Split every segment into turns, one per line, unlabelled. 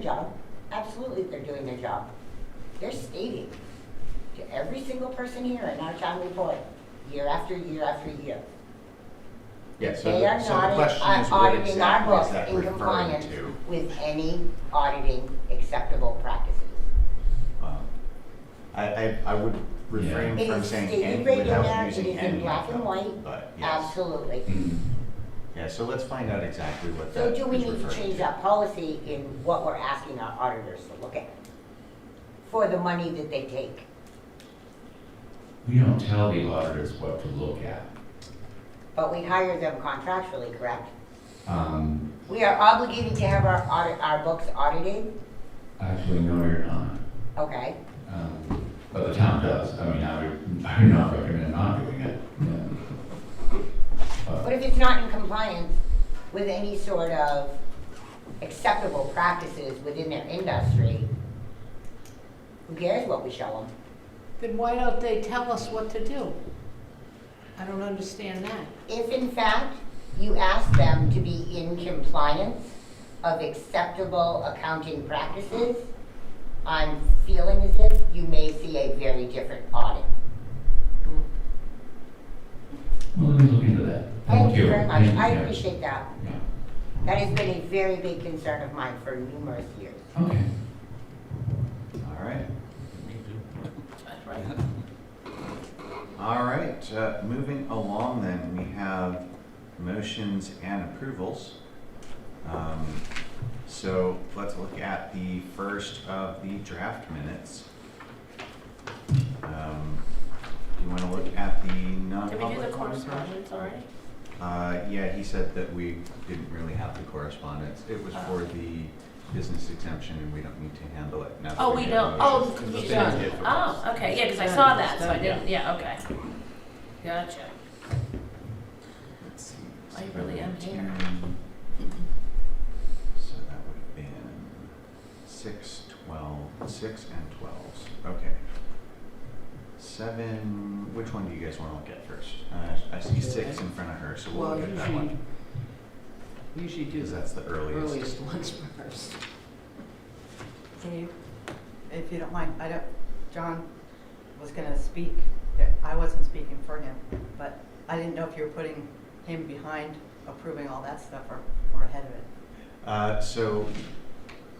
job, absolutely they're doing their job. They're stating to every single person here in our town report, year after year after year.
Yeah, so
They are
the, so the
not
question is
au- auditing
what
our
exactly is
books
that
in
referring
compliance
to?
with any auditing acceptable practices.
Um, I, I, I would refrain
It
from
is
saying
stated
any
right in there,
without
it is
using
in
any
black
of
and
them,
white,
but yes.
absolutely.
Mm.
Yeah, so let's find out exactly what that
So
is
do we
referring to.
need to change our policy in what we're asking our auditors to look at? For the money that they take?
We don't tell the auditors what to look at.
But we hire them contractually, correct?
Um,
We are obligated to have our audit, our books audited,
actually, no, you're not.
okay?
Um, but the town does. I mean, I would, I would not recommend not doing it. Yeah.
But
But
if it's not in compliance with any sort of acceptable practices within their industry, who cares what we show them?
Then why don't they tell us what to do? I don't understand that.
If in fact you ask them to be in compliance of acceptable accounting practices, I'm feeling as if you may see a very different audit.
well, let me look into that.
Thank you very much,
Thank you.
I
Yeah.
appreciate that.
Yeah.
That has been a very big concern of mine for numerous years.
Okay.
All right. All right, uh, moving along then, we have motions and approvals. Um, So let's look at the first of the draft minutes. Um, Do you want to look at the
Did we do the
non-public ones?
correspondence already?
Uh, yeah, he said that we didn't really have the correspondence. It was for
Ah.
the business exemption and we don't need to handle it now. that
Oh, we
made a
don't,
motion.
oh, the
Because
confusion.
thing is-
Oh, okay, yeah, because I saw that, so I didn't, yeah, okay. Gotcha.
Let's see.
I really am here.
So that would have been six, twelve, six and twelves, okay. Seven, which one do you guys wanna look at first? Uh, I see six in front of her, so we'll
Well,
look at that one,
usually, usually do
because
the
that's the earliest.
earliest ones first.
Can you, if you don't mind, I don't, John was gonna speak, I wasn't speaking for him, but I didn't know if you were putting him behind approving all that stuff or, or ahead of it.
Uh, so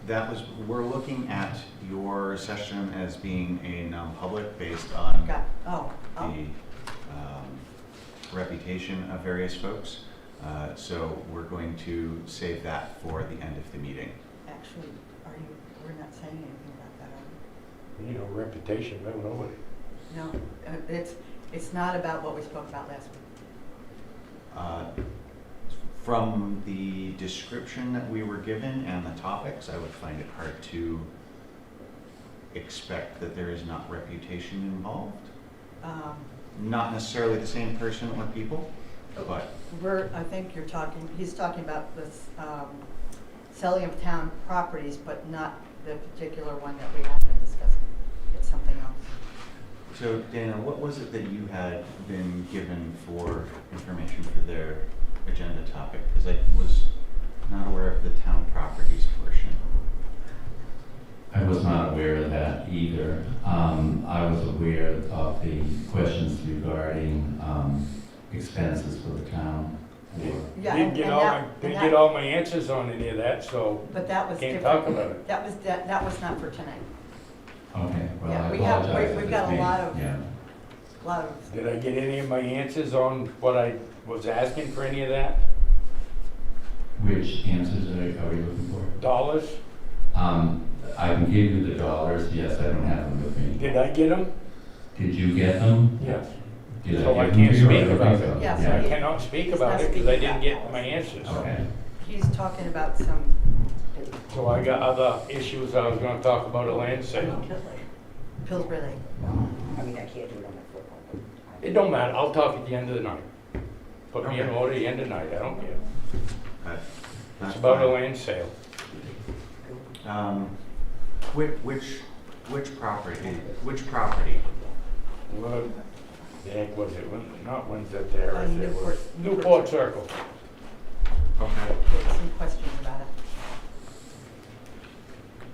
that was, we're looking at your session as being a non-public based on
Got, oh,
the
oh,
um, reputation of various folks. Uh, so we're going to save that for the end of the meeting.
actually, are you, we're not saying anything about that, are
You know, reputation, no, nobody.
we? No, uh, it's, it's not about what we spoke about last week.
Uh, From the description that we were given and the topics, I would find it hard to expect that there is not reputation involved.
Um,
Not necessarily the same person or people, but
We're, I think you're talking, he's talking about this, um, selling of town properties, but not the particular one that we have been discussing. It's something else.
So Dana, what was it that you had been given for information for their agenda topic? Because I was not aware of the town properties portion.
I was not aware of that either. Um, I was aware of the questions regarding, um, expenses for the town or
Yeah,
Didn't
and-
get
and
all,
that-
my didn't
and
get
that-
all my answers on any of that, so
But that was
can't
different.
talk about it.
That was, that, that was not for tonight.
Okay, well,
Yeah,
I
we have-
apologize.
we-
if
we've
it's
got a
me.
lot of-
Yeah,
A lot of,
Did I get any of my answers on what I was asking for any of that?
which answers are, are we looking
Dollars?
for? Um, I can give you the dollars, yes, I don't have them with me.
Did I get them?
Did you get them?
Yes.
Did
So I
give them
can't
to you? I
speak
don't
about
think
it.
so.
Yeah, so
I
you-
cannot speak
He's
about
not
it because I
speaking
didn't
about
get
that.
my answers.
Okay,
he's talking about some,
So I got other issues I was gonna talk about at land sale.
Pillsbury Lake.
I mean, I can't do it on the floor.
It don't matter, I'll talk at the end of the night. Put me in
Okay.
order at the end of the night, I don't care.
Uh, that's
It's about a
fine.
land sale.
Um, which, which, which property, which property?
What the heck was it? Win- Not Windsor Terrace,
Uh,
it was
Newport- Newport
Newport Circle.
Okay.
There's some question